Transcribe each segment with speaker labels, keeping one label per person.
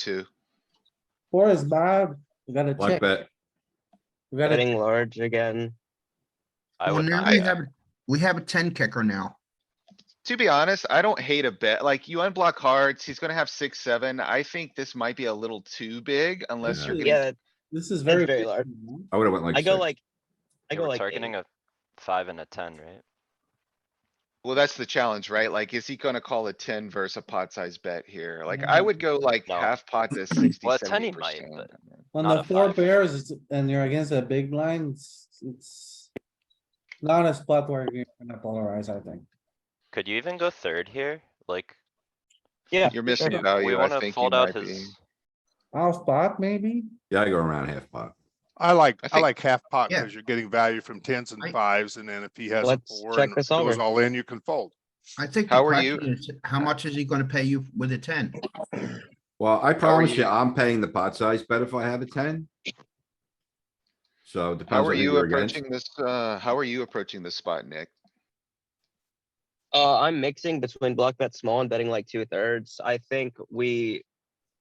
Speaker 1: two.
Speaker 2: Four is bad. We gotta
Speaker 3: Like
Speaker 2: check.
Speaker 3: bet.
Speaker 2: We gotta,
Speaker 4: Betting large again. I
Speaker 5: Well,
Speaker 4: would
Speaker 5: now
Speaker 4: not.
Speaker 5: we
Speaker 4: bet.
Speaker 5: have, a- we have a ten kicker now.
Speaker 1: To be honest, I don't hate a bet. Like you unblock hearts, he's gonna have six, seven. I think this might be a little too big unless you're getting,
Speaker 4: Yeah,
Speaker 2: this is very.
Speaker 4: very large.
Speaker 2: big, man.
Speaker 3: I would have went like.
Speaker 4: I go
Speaker 3: six.
Speaker 4: like, I
Speaker 6: Yeah,
Speaker 4: go
Speaker 6: we're
Speaker 4: like.
Speaker 6: targeting
Speaker 4: eight.
Speaker 6: a five and a ten, right?
Speaker 1: well, that's the challenge, right? Like, is he gonna call a ten versus a pot size bet here? Like, I would go like
Speaker 6: No.
Speaker 1: half pot to sixty,
Speaker 6: Well, a 10
Speaker 1: seventy
Speaker 6: he might,
Speaker 1: percent.
Speaker 6: but-
Speaker 2: On
Speaker 6: Not
Speaker 2: the
Speaker 6: a
Speaker 2: four
Speaker 6: five.
Speaker 2: pairs it's- and you're against a big blind, it's- it's not a spot where you're gonna polarize, I think.
Speaker 6: Could you even go third here? Like,
Speaker 4: Yeah.
Speaker 1: You're missing
Speaker 4: sure.
Speaker 6: we
Speaker 1: value, I
Speaker 6: wanna
Speaker 1: think Oh, you
Speaker 6: fold out
Speaker 1: might be.
Speaker 6: his,
Speaker 2: Off pot, maybe?
Speaker 3: Yeah, I go around half pot.
Speaker 7: I like,
Speaker 1: I
Speaker 7: I
Speaker 1: think-
Speaker 7: like half pot
Speaker 5: Yeah.
Speaker 7: because you're getting value from tens
Speaker 5: I-
Speaker 7: and fives, and then if he has a
Speaker 4: Let's
Speaker 7: four
Speaker 4: check
Speaker 7: and
Speaker 4: this
Speaker 7: goes
Speaker 4: over.
Speaker 7: all in, you can fold.
Speaker 5: I think. the
Speaker 1: How are
Speaker 5: question is, How much is he gonna pay you with a ten?
Speaker 3: Well, I promise
Speaker 1: you-
Speaker 3: you, I'm paying the pot size bet if I have a ten. So it depends
Speaker 1: How are
Speaker 3: on who
Speaker 1: you
Speaker 3: you're against.
Speaker 1: approaching this, uh, how are you approaching this spot, Nick?
Speaker 4: Uh, I'm mixing between block bet small and betting like two thirds. I think we,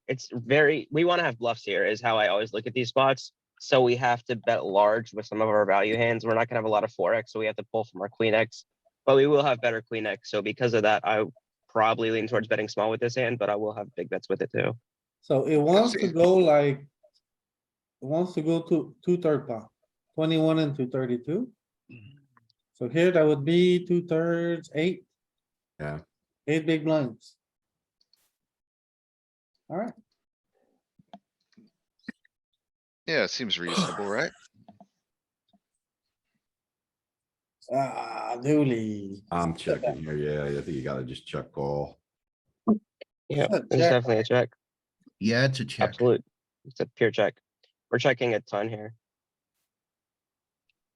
Speaker 4: it's very, we wanna have bluffs here is how I always look at these spots. So we have to bet large with some of our value hands. We're not gonna have a lot of four X, so we have to pull from our queen X. But we will have better queen X, so because of that, I probably lean towards betting small with this hand, but I will have big bets with it too.
Speaker 2: So it wants to go like. It wants to go to two third pot, twenty-one and two thirty-two.
Speaker 3: Mm-hmm.
Speaker 2: So here that would be two thirds, eight.
Speaker 3: Yeah.
Speaker 2: Eight big blinds. Alright,
Speaker 1: Yeah, it seems reasonable, right?
Speaker 2: ah, Dooley.
Speaker 3: I'm checking here. Yeah, I think you gotta just check call.
Speaker 4: Yeah,
Speaker 2: It's a
Speaker 4: it's
Speaker 2: check.
Speaker 4: definitely a check.
Speaker 5: Yeah, it's a check.
Speaker 4: Absolute. It's a pure check. We're checking a ton here.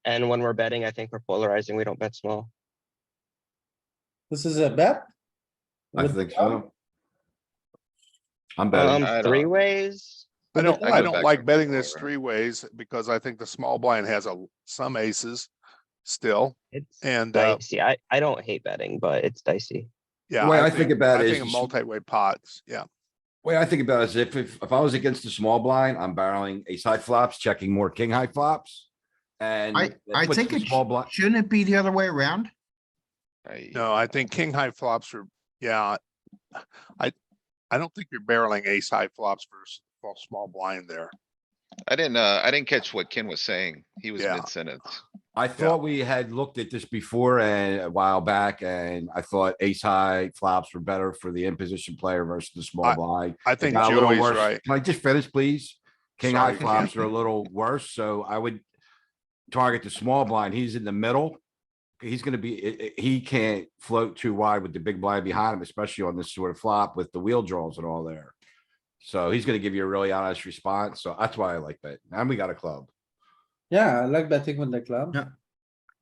Speaker 4: And when we're betting, I think we're polarizing. We don't bet small.
Speaker 2: This is a bet?
Speaker 3: I
Speaker 2: With-
Speaker 3: think so. I'm betting.
Speaker 1: I
Speaker 4: Um,
Speaker 1: don't-
Speaker 4: three ways.
Speaker 7: I don't,
Speaker 1: I
Speaker 7: I
Speaker 1: go back
Speaker 7: don't
Speaker 1: to
Speaker 7: like betting
Speaker 1: four,
Speaker 7: this
Speaker 1: right?
Speaker 7: three ways because I think the small blind has a, some aces still,
Speaker 4: It's
Speaker 7: and, uh,
Speaker 4: dicey. I, I don't hate betting, but it's dicey.
Speaker 7: yeah.
Speaker 3: The way I think about
Speaker 7: I
Speaker 3: it
Speaker 7: think
Speaker 3: is-
Speaker 7: multi-way pots, yeah.
Speaker 3: Way I think about it is if, if, if I was against the small blind, I'm barreling ace high flops, checking more king high flops. And.
Speaker 5: I,
Speaker 3: that
Speaker 5: I
Speaker 3: puts
Speaker 5: think
Speaker 3: the
Speaker 5: it,
Speaker 3: Small
Speaker 5: sh-
Speaker 3: blind,
Speaker 5: shouldn't it be the other way around?
Speaker 1: I-
Speaker 7: No, I think king high flops are, yeah. I, I don't think you're barreling ace high flops versus well, small blind there.
Speaker 1: I didn't, uh, I didn't catch what Ken was saying. He was
Speaker 7: Yeah.
Speaker 1: mid-sentence.
Speaker 3: I thought we had looked at this before and a while back, and I thought ace high flops were better for the imposition player versus the small
Speaker 7: I-
Speaker 3: blind.
Speaker 7: I
Speaker 3: It
Speaker 7: think
Speaker 3: got a little
Speaker 7: Joey's
Speaker 3: worse.
Speaker 7: right.
Speaker 3: Can I just finish, please? King high
Speaker 7: Sorry.
Speaker 3: flops are a little worse, so I would target the small blind. He's in the middle. He's gonna be, i- i- he can't float too wide with the big blind behind him, especially on this sort of flop with the wheel draws and all there. So he's gonna give you a really honest response, so that's why I like that. And we got a club.
Speaker 2: Yeah, I like betting with the club.
Speaker 5: Yeah.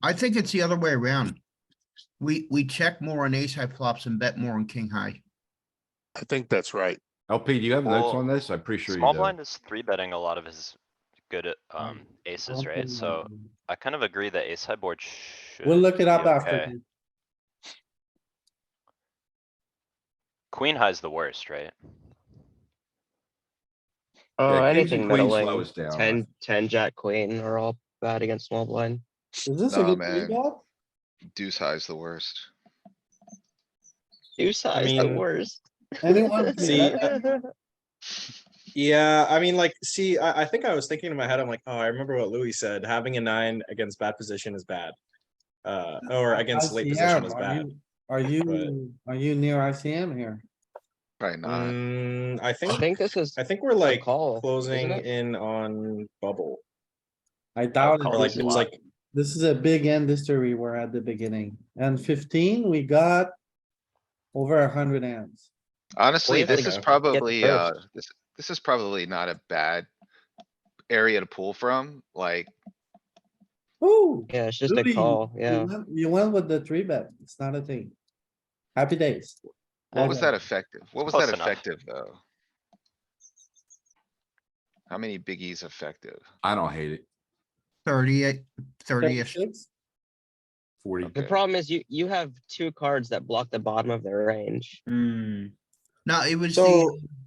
Speaker 5: I think it's the other way around. We, we check more on ace high flops and bet more on king high.
Speaker 7: I think that's right.
Speaker 3: LP, do you have notes
Speaker 6: Well,
Speaker 3: on this? I'm pretty sure you
Speaker 6: small
Speaker 3: do.
Speaker 6: blind is three betting a lot of his good uh, um aces, right? So I kind of agree that ace high board should.
Speaker 2: We'll look it up
Speaker 6: be
Speaker 2: after.
Speaker 6: okay.
Speaker 2: this.
Speaker 6: Queen high's the worst, right?
Speaker 3: Yeah,
Speaker 4: Oh,
Speaker 3: kings and
Speaker 4: anything
Speaker 3: queens
Speaker 4: middling.
Speaker 3: slows down.
Speaker 4: Ten, ten, jack, queen are all bad against small blind.
Speaker 2: Is this a
Speaker 1: Nah,
Speaker 2: good
Speaker 1: man.
Speaker 2: rebuild?
Speaker 1: Deuce high's the worst.
Speaker 4: Two size the
Speaker 8: mean-
Speaker 4: worst.
Speaker 2: Anyone?
Speaker 8: See,
Speaker 4: uh,
Speaker 8: Yeah, I mean, like, see, I, I think I was thinking in my head, I'm like, oh, I remember what Louis said. Having a nine against bad position is bad. Uh, or against late position
Speaker 2: ICM,
Speaker 8: is
Speaker 2: Are
Speaker 8: bad.
Speaker 2: you- are you, are you near ICM here?
Speaker 1: Probably not.
Speaker 8: Mm, I
Speaker 4: I
Speaker 8: think,
Speaker 4: think this is
Speaker 8: I think we're
Speaker 4: a
Speaker 8: like
Speaker 4: call. isn't
Speaker 8: closing
Speaker 4: it?
Speaker 8: in on bubble.
Speaker 2: I doubt
Speaker 8: Or
Speaker 2: it.
Speaker 8: like,
Speaker 2: This
Speaker 8: it's
Speaker 2: is-
Speaker 8: like,
Speaker 2: This is a big end history we're at the beginning. And fifteen, we got over a hundred hands.
Speaker 1: Honestly,
Speaker 4: you have
Speaker 1: this
Speaker 4: to
Speaker 1: is
Speaker 4: get
Speaker 1: probably, uh,
Speaker 4: first.
Speaker 1: this, this is probably not a bad area to pull from, like,
Speaker 2: Ooh.
Speaker 4: Yeah, it's just a
Speaker 2: Louis,
Speaker 4: call,
Speaker 2: you
Speaker 4: yeah.
Speaker 2: went- You went with the three bet. It's not a thing. Happy days.
Speaker 1: what was
Speaker 4: Mm-hmm.
Speaker 2: Okay.
Speaker 1: that effective? What was
Speaker 6: Close
Speaker 1: that
Speaker 6: enough.
Speaker 1: effective, though? How many biggies effective?
Speaker 3: I don't hate it.
Speaker 5: Thirty-eight, thirty-ish.
Speaker 2: Six?
Speaker 3: Forty.
Speaker 4: The
Speaker 1: Okay.
Speaker 4: problem is you, you have two cards that block the bottom of their range.
Speaker 8: hmm.
Speaker 5: No, it was
Speaker 8: So-
Speaker 5: the